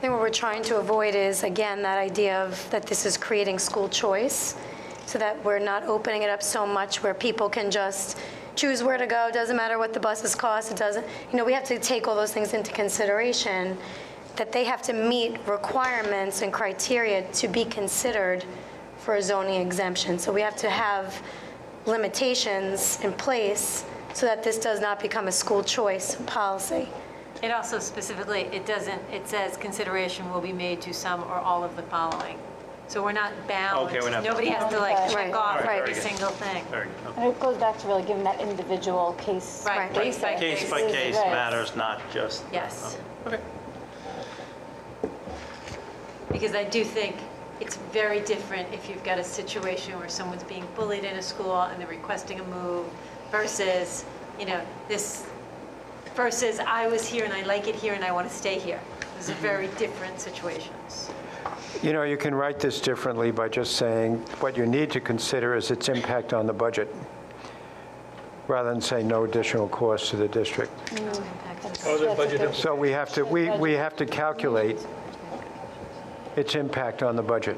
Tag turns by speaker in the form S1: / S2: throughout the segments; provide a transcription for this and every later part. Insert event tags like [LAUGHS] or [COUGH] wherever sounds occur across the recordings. S1: think what we're trying to avoid is, again, that idea of that this is creating school choice, so that we're not opening it up so much where people can just choose where to go, doesn't matter what the buses cost, it doesn't, you know, we have to take all those things into consideration, that they have to meet requirements and criteria to be considered for a zoning exemption. So we have to have limitations in place so that this does not become a school choice policy.
S2: It also specifically, it doesn't, it says consideration will be made to some or all of the following. So we're not bound.
S3: Okay, we're not-
S2: Nobody has to like
S1: Right.
S2: check off
S1: Right.
S2: every single thing.
S3: Very good. Okay.
S4: And it goes back to really giving that individual case.
S2: Right,
S1: Right.
S2: case by
S3: Case by
S2: case.
S3: case
S4: Right.
S3: matters, not just. uh,
S2: Yes.
S3: Okay.
S2: Because I do think it's very different if you've got a situation where someone's being bullied in a school and they're requesting a move versus, you know, this, versus I was here and I like it here and I want to stay here. Those
S3: Mm-hmm.
S2: are very different situations.
S5: You know, you can write this differently by just saying, what you need to consider is its impact on the budget, rather than say no additional cost to the district.
S6: Oh, the budget,
S5: So we have to, we, we have to calculate its impact on the budget,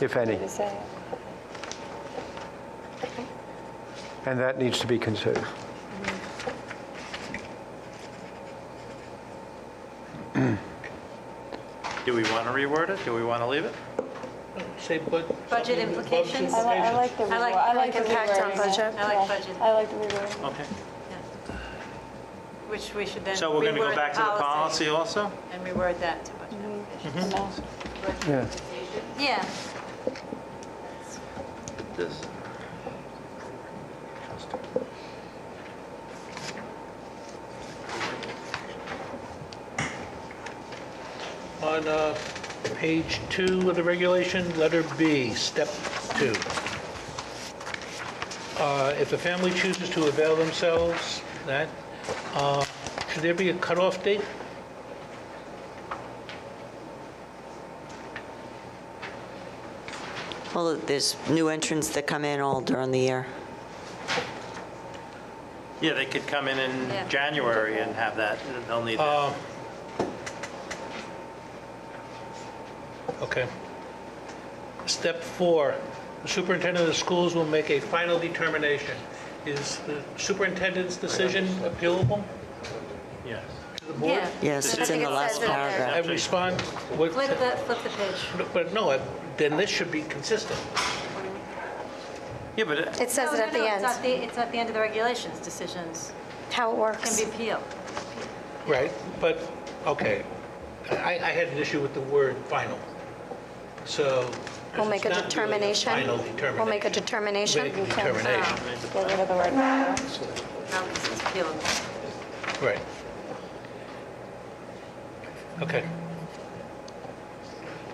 S5: if any, and that needs to be considered.
S3: Do we want to reword it? Do we want to leave it?
S6: say bud.
S2: Budget implications?
S4: I like, I like the, reword.
S2: I like-
S4: I like the
S1: impact on
S4: rewording.
S1: budget.
S2: I like
S4: Yeah.
S2: budget.
S4: I like the rewording.
S3: Okay.
S2: Which we should then.
S3: So we're going to
S2: reword
S3: go
S2: the
S3: back to the policy also?
S2: And reword that to budget.
S5: Yeah.
S2: Yeah.
S3: This.
S6: On uh, page two of the regulation, letter B, step two. Uh, If a family chooses to avail themselves, that, uh, should there be a cutoff date?
S7: Well, there's new entrants that come in all during the year.
S3: Yeah, they could come in
S2: Yeah.
S3: in January and have that. They'll need that.
S6: Uh, Okay. Step four, the superintendent of the schools will make a final determination. Is the superintendent's decision appealable?
S3: Yes.
S2: Yeah.
S7: Yes,
S1: I
S7: it's in
S1: think
S7: the
S1: it
S7: last
S1: says it there.
S7: paragraph.
S6: I respond, what-
S2: Flip the, flip the page.
S6: but no, I- then this should be consistent.
S3: Yeah, but uh, it-
S1: It says it
S2: No,
S1: at
S2: no,
S1: the
S2: no, It's at
S1: end,
S2: the, it's at the end of the regulations. Decisions
S1: how it
S2: can
S1: works.
S2: be appealed.
S6: Right. But, okay, I, I had an issue with the word final, so.
S1: We'll make a
S6: it's not really
S1: determination.
S6: Final
S1: We'll make a determination.
S6: determination. Make a determination,
S4: Get rid of the word now.
S2: No, this is appealable.
S6: right. Okay.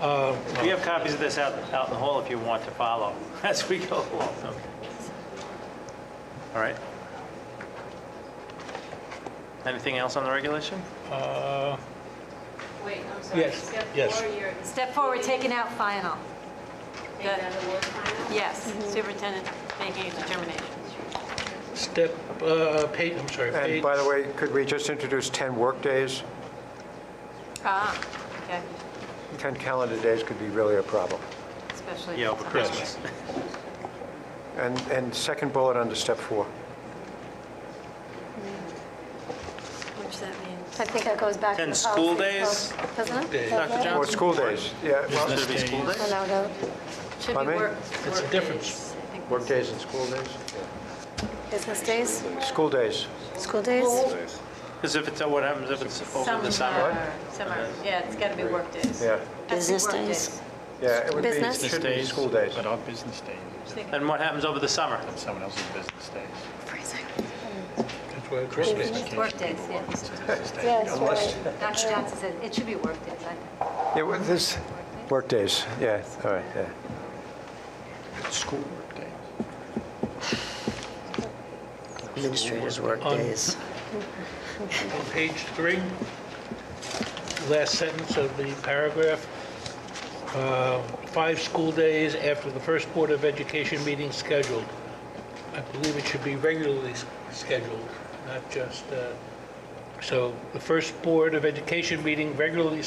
S6: Um,
S3: we have copies of this out, out in the hall if you want to follow [LAUGHS] as we go along. Okay. All right. Anything else on the regulation?
S6: Uh,
S8: Wait, I'm sorry.
S6: Yes,
S8: Step
S6: yes.
S8: four, you're
S2: Step four, we're taking out final.
S8: taking out the word final?
S2: Yes, superintendent making a determination.
S6: Step, uh, page, I'm sorry,
S5: And
S6: page.
S5: by the way, could we just introduce 10 workdays?
S2: Ah, okay,
S5: 10 calendar days could be really a problem.
S2: especially.
S3: Yeah, over Christmas. [LAUGHS]
S5: And, and second bullet under step four.
S2: Which that means.
S1: I think that goes back. to
S3: And
S1: the
S3: school
S1: policy
S3: days?
S1: book, Doesn't it?
S3: Dr. Johnson?
S5: Or school days, yeah. well,
S3: Business days. school
S1: Oh,
S3: days?
S1: no, no.
S2: Should
S5: Pardon
S2: be
S5: me?
S2: work.
S6: It's a
S2: work
S6: difference.
S2: days, I think.
S5: Workdays and school days?
S1: Business days,
S5: School days.
S1: school days?
S3: Because if it's, what happens if it's over the summer?
S2: Summer, summer, yeah, it's got to be work days.
S5: Yeah,
S2: Has to be
S7: Business
S2: work
S7: days?
S5: yeah, it would be,
S1: Business.
S5: it should be school days.
S9: But on business days,
S3: And what happens over the summer?
S9: someone else's business days.
S6: That's where Christmas
S2: It's Work days, yeah.
S3: [LAUGHS]
S4: Yes, right.
S2: Dr. Johnson said it should be work days, I think.
S5: Yeah, well, this, workdays, yeah, all right, yeah.
S9: School work days.
S7: Administrators' workdays.
S6: On page three, last sentence of the paragraph, uh, five school days after the first Board of Education meeting scheduled. I believe it should be regularly s- scheduled, not just, uh, so the first Board of Education meeting regularly